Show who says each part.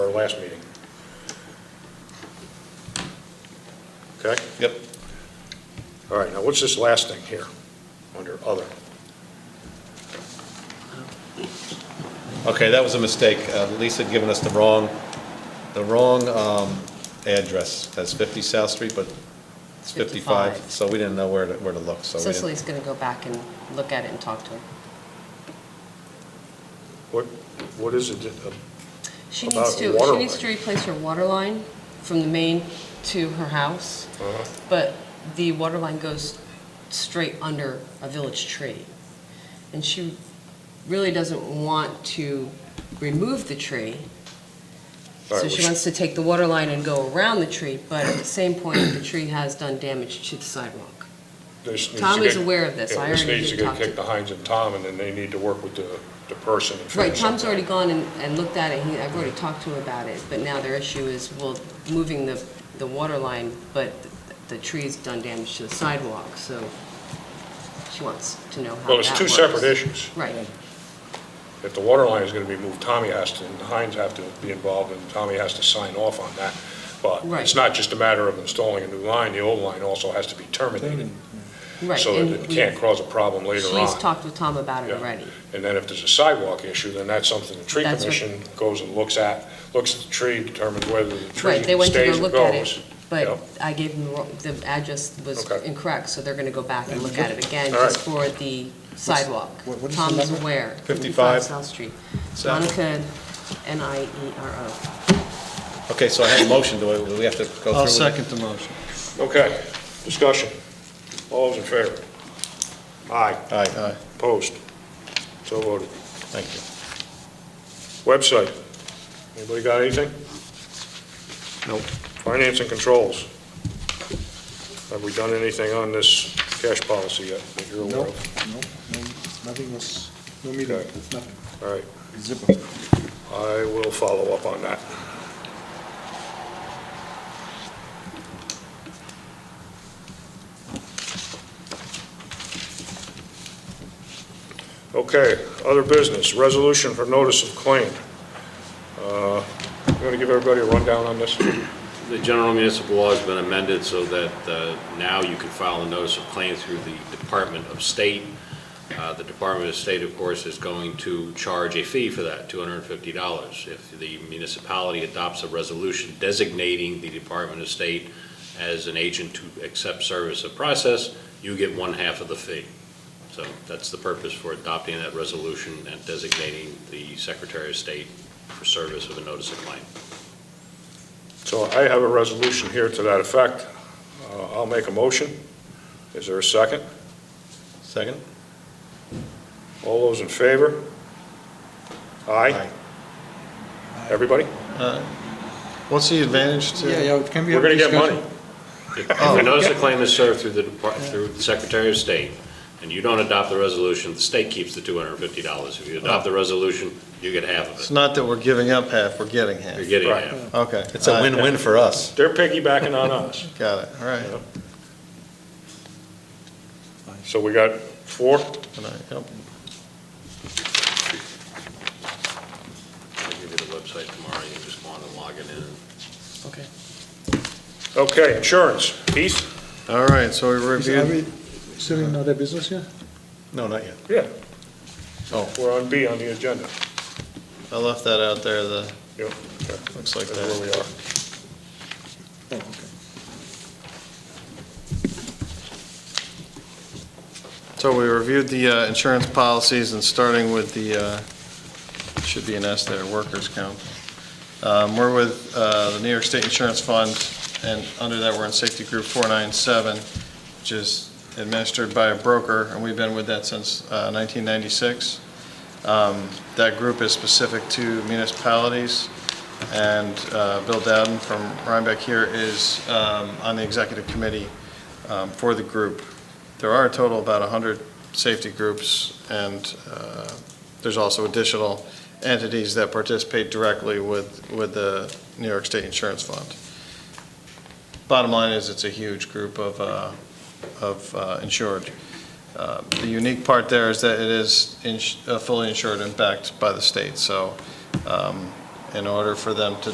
Speaker 1: our last meeting. Okay?
Speaker 2: Yep.
Speaker 1: All right, now what's this last thing here, under other?
Speaker 2: Okay, that was a mistake. Uh, Lisa had given us the wrong, the wrong um, address. That's 50 South Street, but it's 55,
Speaker 3: 55.
Speaker 2: so we didn't know where to, where to look, so we didn't-
Speaker 3: Cicely's going to go back and look at it and talk to her.
Speaker 1: What, what is it? that-
Speaker 3: She
Speaker 1: About
Speaker 3: needs to,
Speaker 1: water
Speaker 3: she needs to replace her water line from the main to her house,
Speaker 1: uh,
Speaker 3: but the water line goes straight under a village tree. And she really doesn't want to remove the tree,
Speaker 1: all right,
Speaker 3: so she
Speaker 1: well,
Speaker 3: wants to take the water line and go around the tree, but at the same point, the tree has done damage to the sidewalk.
Speaker 1: this needs to
Speaker 3: Tom is
Speaker 1: get-
Speaker 3: aware of this.
Speaker 1: yeah,
Speaker 3: I
Speaker 1: This
Speaker 3: already
Speaker 1: needs to
Speaker 3: did
Speaker 1: get
Speaker 3: talk to-
Speaker 1: kicked to Heinz and Tom, and then they need to work with the, the person. and
Speaker 3: Right,
Speaker 1: figure
Speaker 3: Tom's
Speaker 1: something
Speaker 3: already
Speaker 1: out.
Speaker 3: gone and, and looked at it, he, I've already talked to him about it, but now their issue is, well, moving the, the water line, but the tree's done damage to the sidewalk, so she wants to know how that works.
Speaker 1: Well, it's two separate issues.
Speaker 3: Right,
Speaker 1: If the water line is going to be moved, Tommy has to, and Heinz have to be involved, and Tommy has to sign off on that. But it's
Speaker 3: Right.
Speaker 1: not just a matter of installing a new line, the old line also has to be terminated,
Speaker 3: right.
Speaker 1: so
Speaker 3: and
Speaker 1: that it can't cause a problem later on.
Speaker 3: She's talked with Tom about it
Speaker 1: Yeah.
Speaker 3: already.
Speaker 1: And then if there's a sidewalk issue, then that's something the tree
Speaker 3: That's what-
Speaker 1: commission goes and looks at, looks at the tree, determines whether the tree
Speaker 3: Right, they went to go
Speaker 1: stays or
Speaker 3: look at it,
Speaker 1: goes.
Speaker 3: but
Speaker 1: Yep.
Speaker 3: I gave them, the wrong- the address was
Speaker 1: Okay.
Speaker 3: incorrect, so they're gonna go back and look at it again,
Speaker 1: All right.
Speaker 3: just for the sidewalk.
Speaker 4: what- what is the
Speaker 3: Tom is
Speaker 4: number?
Speaker 3: aware.
Speaker 2: 55.
Speaker 3: South Street.
Speaker 2: South.
Speaker 3: Monica, E N-I-E-R-O.
Speaker 2: Okay, so I have a motion, do I- do we have to go through?
Speaker 4: I'll
Speaker 2: with it?
Speaker 4: second the motion.
Speaker 1: Okay, discussion. All those in favor? Aye,
Speaker 2: Aye,
Speaker 1: opposed, so voted.
Speaker 2: thank you.
Speaker 1: Website, anybody got anything?
Speaker 2: Nope.
Speaker 1: Finance and controls. Have we done anything on this cash policy yet that you're
Speaker 4: No,
Speaker 1: aware
Speaker 4: no,
Speaker 1: of?
Speaker 4: no, nothing was, no meeting,
Speaker 1: Okay.
Speaker 4: nothing.
Speaker 1: All right,
Speaker 4: Zippo.
Speaker 1: I will follow up on that. Okay, other business, resolution for notice of claim. Uh, You want to give everybody a rundown on this?
Speaker 5: The general municipal law has been amended so that uh, now you can file a notice of claim through the Department of State. Uh, The Department of State, of course, is going to charge a fee for that, $250. If the municipality adopts a resolution designating the Department of State as an agent to accept service of process, you get one half of the fee. So that's the purpose for adopting that resolution and designating the Secretary of State for service of a notice of claim.
Speaker 1: So I have a resolution here to that effect. Uh, I'll make a motion. Is there a second?
Speaker 2: Second?
Speaker 1: All those in favor? Aye?
Speaker 2: Aye.
Speaker 1: Everybody?
Speaker 2: What's the advantage
Speaker 4: Yeah, yeah, can we
Speaker 1: We're going
Speaker 4: have a
Speaker 1: to get money.
Speaker 4: discussion?
Speaker 5: If a notice of claim is served through the, depart- through the Secretary of State, and you don't adopt the resolution, the state keeps the two hundred and fifty dollars. If you adopt the resolution, you get half of
Speaker 6: It's
Speaker 5: it.
Speaker 6: not that we're giving up half, we're getting half.
Speaker 5: You're getting
Speaker 1: Right.
Speaker 5: half.
Speaker 6: Okay.
Speaker 2: It's a win-win for us.
Speaker 1: They're piggybacking on us.
Speaker 6: Got it, all right.
Speaker 1: So we got four?
Speaker 6: All right, yep.
Speaker 5: I'll give you the website tomorrow, you can just go on and log it in.
Speaker 4: Okay.
Speaker 1: Okay, insurance. Heath?
Speaker 6: All right, so we
Speaker 4: Is- Are
Speaker 6: reviewed,
Speaker 4: we still in other business here?
Speaker 2: No, not yet.
Speaker 1: Yeah.
Speaker 2: Oh.
Speaker 1: We're on B on the agenda.
Speaker 6: I left that out there, the,
Speaker 1: Yep.
Speaker 6: looks like
Speaker 1: That's where
Speaker 6: that.
Speaker 1: we are.
Speaker 4: Oh, okay.
Speaker 6: So we reviewed the uh, insurance policies and starting with the, uh, should be an S there, workers' comp. Um, We're with uh, the New York State Insurance Fund, and under that, we're in Safety Group 497, which is administered by a broker, and we've been with that since uh, 1996. Um, That group is specific to municipalities, and uh, Bill Dowden from Rhinebeck here is um, on the executive committee um, for the group. There are a total of about 100 safety groups, and uh, there's also additional entities that participate directly with, with the New York State Insurance Fund. Bottom line is, it's a huge group of, uh, of uh, insured. Uh, The unique part there is that it is ins- uh, fully insured and backed by the state, so um, in order for them to